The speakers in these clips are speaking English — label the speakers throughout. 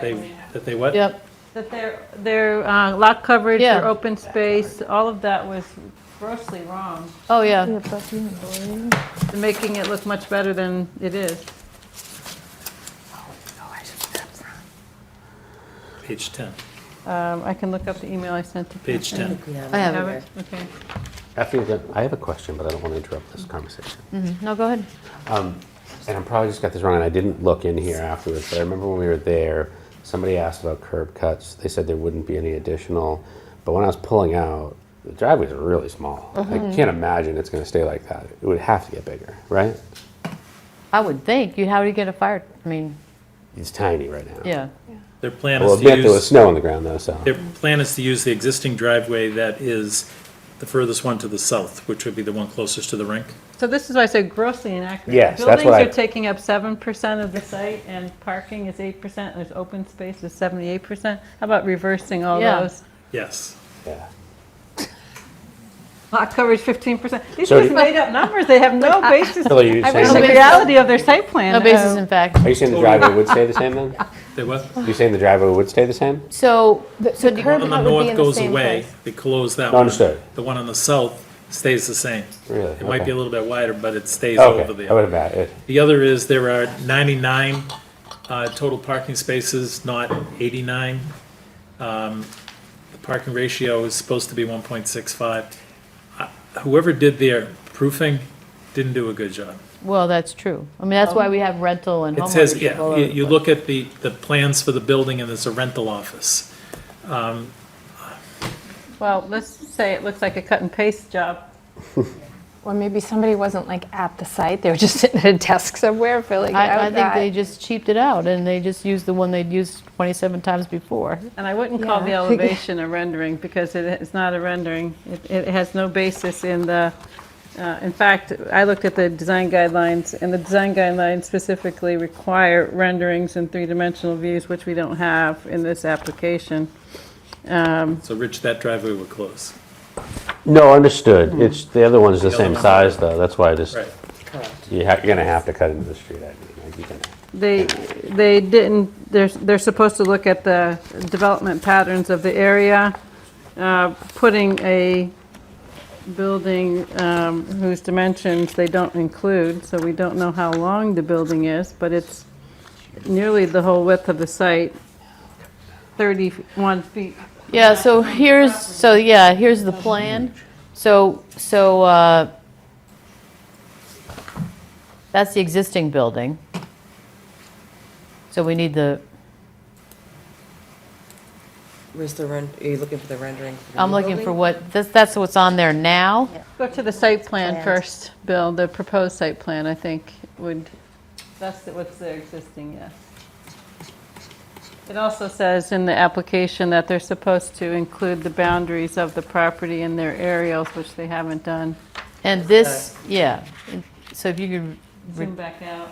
Speaker 1: They, that they what?
Speaker 2: Yep,
Speaker 3: That their, their uh, lot coverage, their
Speaker 2: Yeah.
Speaker 3: open space, all of that was grossly wrong.
Speaker 2: oh, yeah.
Speaker 3: They're Making it look much better than it is.
Speaker 1: Page 10,
Speaker 3: Um, I can look up the email I sent to.
Speaker 1: page 10.
Speaker 2: I have
Speaker 3: Have
Speaker 2: it.
Speaker 3: it? Okay.
Speaker 4: After you're done, I have a question, but I don't want to interrupt this conversation.
Speaker 2: No, go ahead.
Speaker 4: And I'm probably just got this wrong, and I didn't look in here afterwards, but I remember when we were there, somebody asked about curb cuts. They said there wouldn't be any additional, but when I was pulling out, the driveways are really small.
Speaker 2: Mm-hmm.
Speaker 4: I can't imagine it's going to stay like that. It would have to get bigger, right?
Speaker 2: I would think, you, how do you get a fire, I mean,
Speaker 4: It's tiny right now.
Speaker 2: yeah.
Speaker 1: Their plan
Speaker 4: Well,
Speaker 1: is
Speaker 4: I
Speaker 1: to
Speaker 4: bet there was
Speaker 1: use,
Speaker 4: snow on the ground though, so.
Speaker 1: their plan is to use the existing driveway that is the furthest one to the south, which would be the one closest to the rink.
Speaker 3: So this is why I said grossly inaccurate.
Speaker 4: Yes, that's what
Speaker 3: Buildings
Speaker 4: I-
Speaker 3: are taking up 7% of the site and parking is 8%, there's open space is 78%. How about reversing all
Speaker 2: Yeah.
Speaker 3: those?
Speaker 1: Yes.
Speaker 4: Yeah.
Speaker 3: Lot coverage 15%. These
Speaker 4: So
Speaker 3: are just
Speaker 4: do-
Speaker 3: made up numbers, they have no basis
Speaker 4: Bill, are you
Speaker 3: in
Speaker 2: wish
Speaker 3: the
Speaker 2: I
Speaker 4: saying,
Speaker 2: could-
Speaker 3: reality of their site plan.
Speaker 2: No basis
Speaker 3: Uh,
Speaker 2: in fact.
Speaker 4: are you saying the driveway would stay the same then?
Speaker 1: They what?
Speaker 4: You saying the driveway would stay the same?
Speaker 2: So, so do
Speaker 1: One on the
Speaker 5: cut would be
Speaker 1: north
Speaker 5: in the
Speaker 1: goes
Speaker 5: same
Speaker 1: away,
Speaker 5: place.
Speaker 1: they close that one.
Speaker 4: Understood.
Speaker 1: The one on the south stays the same.
Speaker 4: Really?
Speaker 1: It might be
Speaker 4: Okay.
Speaker 1: a little bit wider, but it stays over
Speaker 4: Okay, I would
Speaker 1: there.
Speaker 4: have added.
Speaker 1: The other is there are 99 uh, total parking spaces, not 89. Um, The parking ratio is supposed to be 1.65. Uh, Whoever did their proofing didn't do a good job.
Speaker 2: well, that's true. I mean, that's why we have rental and
Speaker 1: It
Speaker 2: homeownership.
Speaker 1: says, yeah,
Speaker 2: all
Speaker 1: you,
Speaker 2: over
Speaker 1: you
Speaker 2: the
Speaker 1: look at the, the plans for the building and there's a rental office.
Speaker 3: Well, let's say it looks like a cut and paste job.
Speaker 5: Or maybe somebody wasn't like at the site, they were just sitting at a desk somewhere "Oh, filling
Speaker 2: place.
Speaker 5: it out.
Speaker 2: I, I think they
Speaker 5: that-
Speaker 2: just cheaped it out and they just used the one they'd used 27 times before.
Speaker 3: And I wouldn't call the
Speaker 5: Yeah.
Speaker 3: elevation a rendering, because it is not a rendering. It- It has no basis in the, uh, in fact, I looked at the design guidelines, and the design guidelines specifically require renderings and three-dimensional views, which we don't have in this application.
Speaker 1: So Rich, that driveway would close.
Speaker 4: No,
Speaker 2: Mm-hmm.
Speaker 4: understood. It's, the other one's the same size though, that's why I just.
Speaker 1: Right.
Speaker 4: You ha- You're going to have to cut into the street, I mean, like, you're gonna-
Speaker 3: They, they didn't, they're, they're supposed to look at the development patterns of the area. Uh, Putting a building um, whose dimensions they don't include, so we don't know how long the building is, but it's nearly the whole width of the site, 31 feet.
Speaker 2: Yeah, so here's, so yeah, here's the plan. So, so, uh, that's the existing building. So we need the,
Speaker 6: Where's the rend, are you looking for the rendering?
Speaker 5: Um,
Speaker 6: for the
Speaker 2: I'm
Speaker 6: new
Speaker 2: looking for
Speaker 6: building?
Speaker 2: what, that's, that's what's on there now?
Speaker 3: Go to the site plan
Speaker 5: Plans.
Speaker 3: first, Bill, the proposed site plan, I think, would, that's the- what's there existing, yes. It also says in the application that they're supposed to include the boundaries of the property in their aerials, which they haven't done.
Speaker 2: And this, yeah, and so if you
Speaker 3: Zoom
Speaker 2: could,
Speaker 3: back out.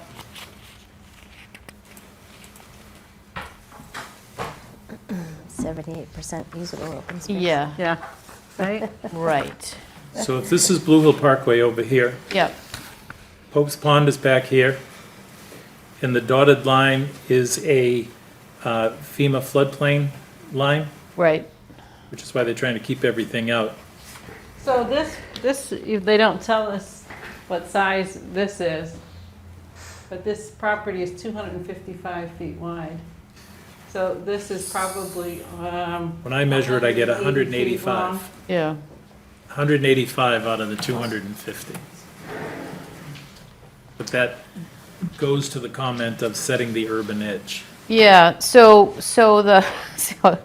Speaker 7: Seventy-eight percent usable open space.
Speaker 2: yeah,
Speaker 3: Yeah, right?
Speaker 2: right,
Speaker 1: So if this is Blue Hill Parkway over here,
Speaker 2: yep,
Speaker 1: Pope's Pond is back here, and the dotted line is a uh, FEMA floodplain line,
Speaker 2: right.
Speaker 1: which is why they're trying to keep everything out.
Speaker 3: So this, this, if they don't tell us what size this is, but this property is 255 feet wide. So this is probably, um,
Speaker 1: When I measure it, I get
Speaker 3: 180 feet long.
Speaker 1: 185,
Speaker 2: Yeah,
Speaker 1: 185 out of the 250. But that goes to the comment of setting the urban edge.
Speaker 2: yeah, so, so the, so,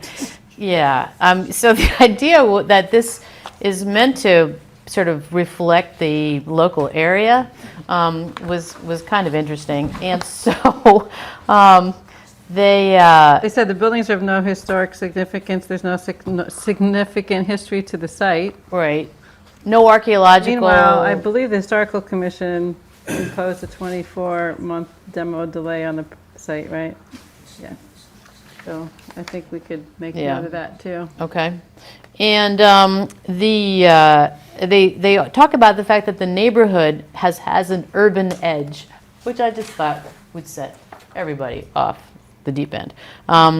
Speaker 2: yeah, um, so the idea wa- that this is meant to sort of reflect the local area um, was, was kind of interesting, and so, um, they, uh,
Speaker 3: They said the buildings are of no historic significance, there's no sig- no significant history to the site.
Speaker 2: right, no archaeological.
Speaker 3: Meanwhile, I believe the Historical Commission imposed a 24-month demo delay on the p- site, right? Yeah. So I think we could make
Speaker 2: Yeah.
Speaker 3: note of that, too.
Speaker 2: Okay. And um, the, uh, they, they talk about the fact that the neighborhood has, has an urban edge, which I just thought would set everybody off the the deep end. Um,